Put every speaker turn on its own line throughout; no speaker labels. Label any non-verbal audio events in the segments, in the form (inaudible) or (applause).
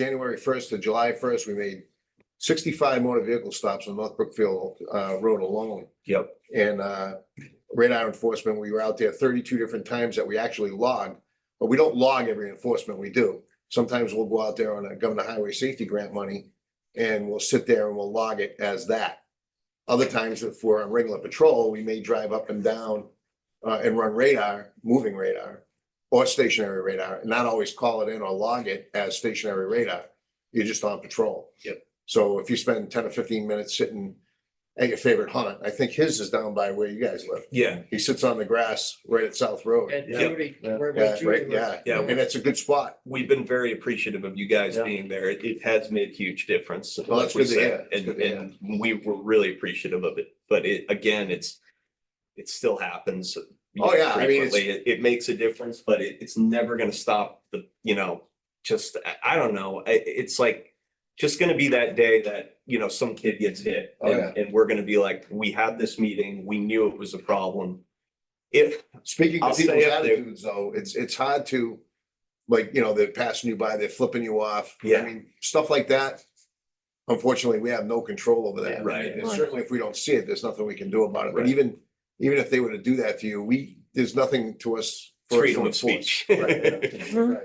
January first to July first, we made sixty-five motor vehicle stops on North Brookfield uh, Road alone.
Yep.
And uh, radar enforcement, we were out there thirty-two different times that we actually logged. But we don't log every enforcement we do. Sometimes we'll go out there on a government highway safety grant money and we'll sit there and we'll log it as that. Other times, if we're on regular patrol, we may drive up and down uh, and run radar, moving radar or stationary radar, and not always call it in or log it as stationary radar. You're just on patrol.
Yep.
So if you spend ten or fifteen minutes sitting at your favorite haunt, I think his is down by where you guys live.
Yeah,
He sits on the grass right at South Road.
At
Yeah.
Judy, where
Yeah,
we Judy
right,
was.
yeah.
Yeah.
And it's a good spot.
we've been very appreciative of you guys
Yeah.
being there. It, it has made a huge difference.
Well, that's
like
good
we
to hear.
said,
That's
And,
good to
and we were really appreciative of it, but it, again, it's, it still happens. you
Oh,
know,
yeah, I mean, it's-
frequently. It, it makes a difference, but it, it's never gonna stop the, you know, just, I, I don't know, I, it's like, just gonna be that day that, you know, some kid gets hit.
Oh,
and- And we're gonna be like, we had this meeting, we knew it was a problem. If,
Speaking
I'll
of
stay
people's
up there.
attitudes, though, it's, it's hard to, like, you know, they're passing you by, they're flipping you off. I
Yeah.
mean, stuff like that. Unfortunately, we have no control over that.
Right.
And certainly if we don't see it, there's nothing we can do about it. But
Right.
even, even if they were to do that to you, we, there's nothing to us. for us to
freedom of
enforce.
speech.
Right, yeah, right.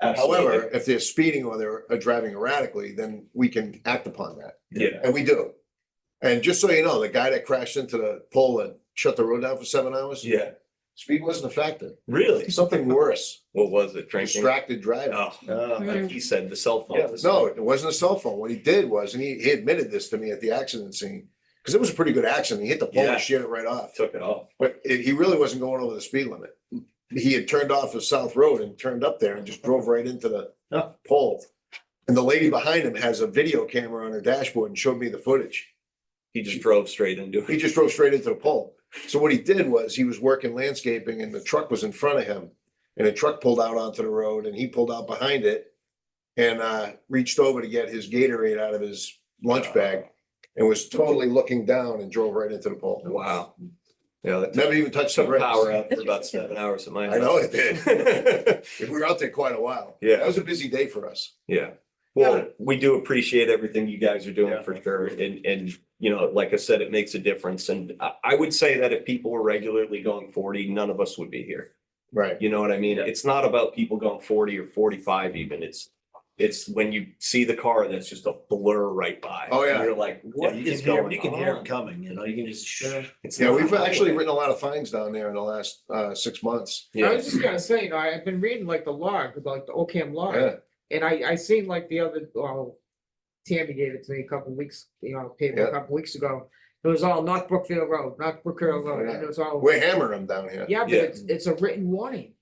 Absolutely.
However, if they're speeding or they're uh, driving erratically, then we can act upon that,
Yeah,
and we do. And just so you know, the guy that crashed into the pole and shut the road down for seven hours,
yeah,
speed wasn't a factor.
really?
Something worse,
What was it, drinking?
distracted driving.
Oh, like he said, the cell phone.
Uh, No, it wasn't a cell phone. What he did was, and he he admitted this to me at the accident scene, because it was a pretty good accident. He hit the pole
Yeah.
and sheared it right off.
Took it off.
But it- he really wasn't going over the speed limit. He had turned off the South Road and turned up there and just drove right into the
Huh.
pole. And the lady behind him has a video camera on her dashboard and showed me the footage.
He just drove straight into
He
it.
just drove straight into the pole. So what he did was he was working landscaping and the truck was in front of him. And the truck pulled out onto the road and he pulled out behind it and uh reached over to get his Gatorade out of his lunch bag and was totally looking down and drove right into the pole.
Wow. Yeah, that took
Never even touched the
some
brakes.
power out for about seven hours at my house.
I know it
did.
We were out there quite a while.
Yeah.
That was a busy day for us.
(laughs) Yeah. Well, we do appreciate everything you guys are doing for sure. And, and, you know, like I said, it makes a difference. And I, I would say that if people were regularly going forty, none of us would be here.
Right.
You know what I mean?
Yeah.
It's not about people going forty or forty-five even. It's, it's when you see the car that's just a blur right by.
Oh, yeah.
You're like, what
Yeah, you
is
can hear-
going
You can hear them
on?
coming, you know, you can just.
It's
Yeah,
not
we've
a highway.
actually written a lot of fines down there in the last uh six months.
I
Yeah,
was just gonna say, you know, I- I've been reading like the log, like the Ocam
Yeah,
log, and I, I seen like the other, well, Tammy gave it to me a couple weeks, you know, paper
Yeah.
a couple weeks ago. It was all North Brookfield Road, North Brookfield Road, and it was all,
We're hammering them down here.
yeah, but
Yeah.
it's, it's a written warning.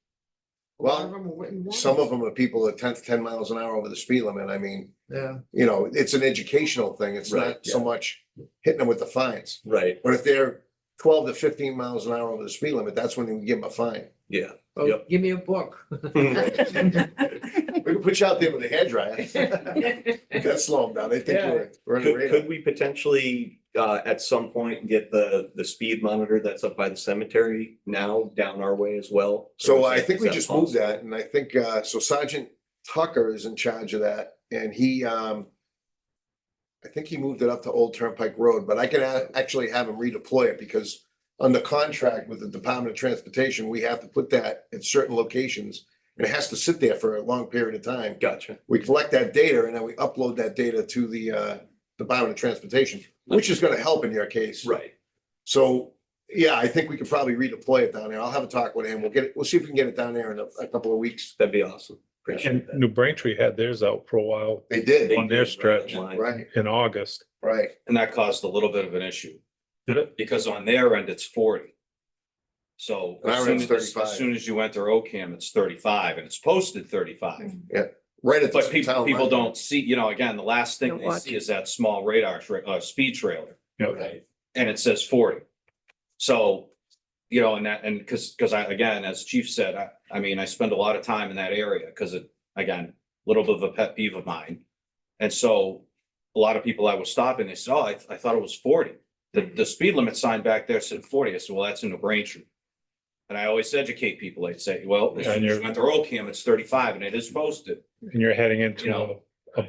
A lot of
Well,
them are written warnings.
Some of them are people at tenth, ten miles an hour over the speed limit. I mean,
Yeah,
you know, it's an educational thing. It's
Right,
not so much hitting them with the fines. (laughs)
right,
But if they're twelve to fifteen miles an hour over the speed limit, that's when you give them a fine.
yeah.
oh,
Yep.
give me a
(laughs)
book. (laughs)
We can put you out there with a
(laughs)
hairdryer. That's slow them down. They think
Yeah.
we're, we're in the
Could,
radar.
could we potentially, uh, at some point get the, the speed monitor that's up by the cemetery now down our way as well?
So
Or is
I
that-
think
is
we
that
just moved
possible?
that and I think, uh, so Sergeant Tucker is in charge of that and he, um. I think he moved it up to Old Turnpike Road, but I can a- actually have him redeploy it because under contract with the Department of Transportation, we have to put that at certain locations. And it has to sit there for a long period of time.
Gotcha.
We collect that data and then we upload that data to the, uh, Department of Transportation, which is gonna help in your case.
Right.
So, yeah, I think we could probably redeploy it down there. I'll have a talk with him. We'll get it, we'll see if we can get it down there in a, a couple of weeks.
That'd be awesome.
And
Appreciate that.
New Braintree had theirs out for a while
They did,
on their stretch.
right,
in August.
right.
And that caused a little bit of an issue,
Did it?
because on their end, it's forty. So
And I
as
read
soon
it's
as,
35.
as soon as you enter OCAM, it's thirty-five and it's posted thirty-five.
Right at the
But people,
town
people
line.
don't see, you know, again, the last thing
Don't
they
watch
see is that small radar, tra- uh, speed trailer.
Yeah.
Right. And it says forty. So, you know, and that, and because, because I, again, as Chief said, I, I mean, I spend a lot of time in that area because it, again, a little bit of a pet peeve of mine. And so a lot of people I was stopping, they said, oh, I, I thought it was forty.
Hmm.
The, the speed limit sign back there said forty. I said, well, that's in New Braintree. And I always educate people. I'd say, well,
Yeah, and
when
you're-
they're OCAM, it's thirty-five and it is posted.
And you're heading
You know,
into